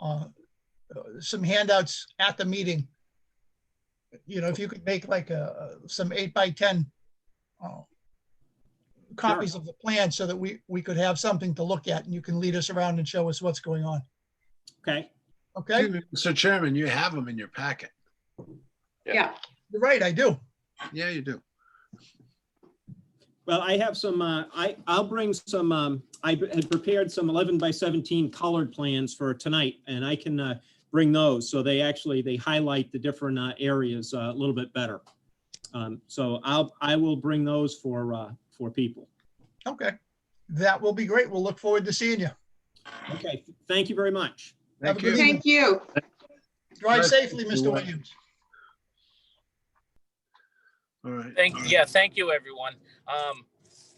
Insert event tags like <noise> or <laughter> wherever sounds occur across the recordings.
uh, some handouts at the meeting. You know, if you could make like a, some eight by 10 uh, copies of the plan so that we, we could have something to look at and you can lead us around and show us what's going on. Okay, Okay? Mr. Chairman, you have them in your packet. Yeah, You're right, I do. Yeah, you do. well, I have some, uh, I, I'll bring some, um, I had prepared some 11 by 17 colored plans for tonight, and I can uh, bring those, so they actually, they highlight the different uh, areas uh, a little bit better. Um, So I'll, I will bring those for, uh, for people. Okay. That will be great. We'll look forward to seeing you. Okay, thank you very much. Have a Thank good you. evening. thank you. Drive Right. safely, Mr. You're Williams. All right. Thank, yeah, thank you, everyone. Um,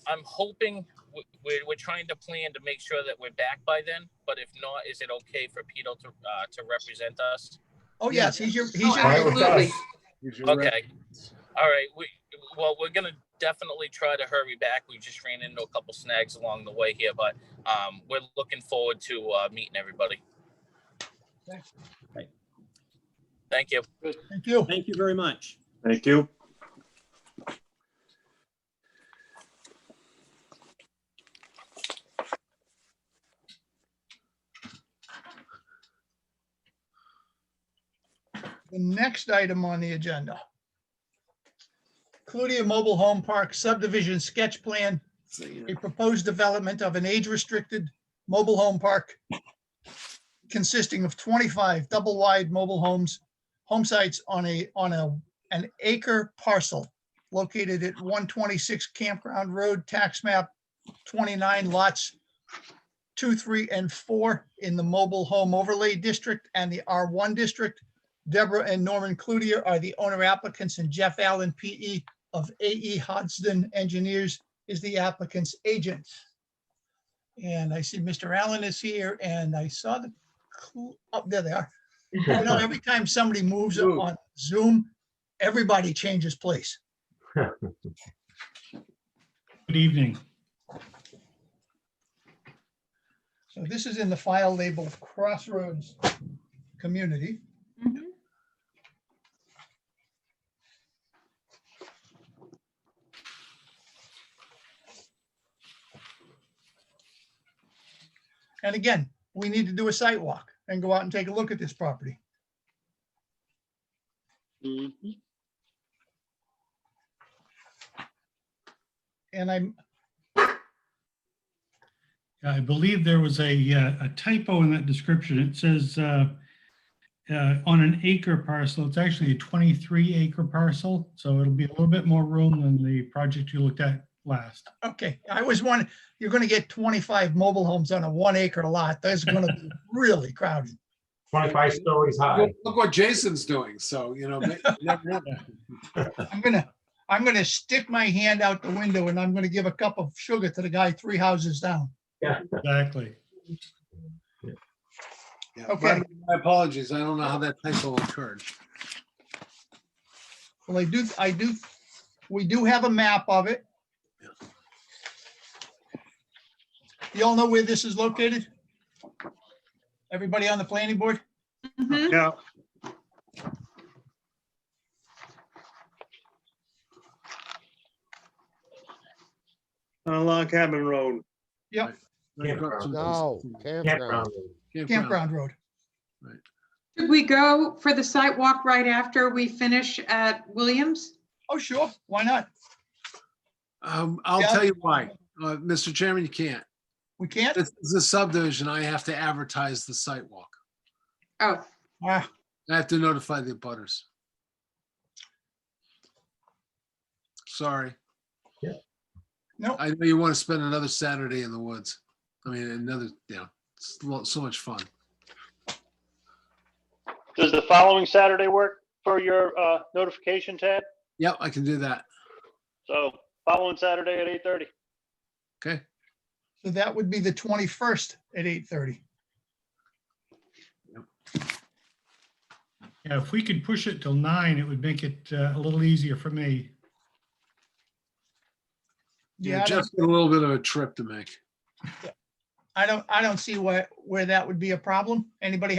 I'm hoping, w- we're, we're trying to plan to make sure that we're back by then, but if not, is it okay for Pito to, uh, to represent us? Oh, yes, he's your, he's Oh, your, absolutely. Here's your rep. Okay. All right, we, well, we're gonna definitely try to hurry back. We just ran into a couple snags along the way here, but, um, we're looking forward to, uh, meeting everybody. Thank you. thank you. Thank you very much. Thank you. The next item on the agenda. Cludia Mobile Home Park subdivision sketch plan, a proposed development of an age-restricted mobile home park consisting of 25 double-wide mobile homes, home sites on a, on a, an acre parcel located at 126 Campground Road, tax map 29 lots 2, 3, and 4 in the Mobile Home Overlay District and the R1 District. Deborah and Norman Cloutier are the owner applicants and Jeff Allen, PE of AE Hodgson Engineers is the applicant's agent. And I see Mr. Allen is here and I saw the, cl- oh, there they are. You know, every time somebody moves up on Zoom, everybody changes place. Good evening. So this is in the file labeled Crossroads Community. Mhm. And again, we need to do a site walk and go out and take a look at this property. And I'm, I believe there was a uh, a typo in that description. It says uh, uh, on an acre parcel, it's actually a 23 acre parcel, so it'll be a little bit more room than the project you looked at last. Okay, I was wondering, you're gonna get twenty-five mobile homes on a one acre lot. That's gonna be really crowded. 25 stories high. Look look what Jason's doing. So, you know, ma- you never <laughs> know. I'm gonna, I'm gonna stick my hand out the window and I'm gonna give a cup of sugar to the guy three houses down. Exactly. Yeah, Okay. pardon My apologies. I don't know how that typo occurred. Well, I do, I do, we do have a map of it. You all know where this is located? Everybody on the planning board? Mhm. Yeah. On Log Cabin Road. Campground. No, Campground. campground. Campground Road. Should we go for the site walk right after we finish at Williams? Oh, sure, why not? Um, I'll Yeah. tell you why. Uh, Mr. Chairman, you can't. We can't? This is a subdivision. I have to advertise the site walk. Oh, Ah, I have to notify the abutters. Sorry. No, I know you want to spend another Saturday in the woods. I mean, another, yeah, it's lo- so much fun. Does the following Saturday work for your uh, notification, Ted? Yep, I can do that. So following Saturday at 8:30. Okay. so that would be the twenty-first at eight-thirty. Yeah, if we could push it till nine, it would make it uh, a little easier for me. Yeah, just a little bit of a trip to make. I don't, I don't see where, where that would be a problem. Anybody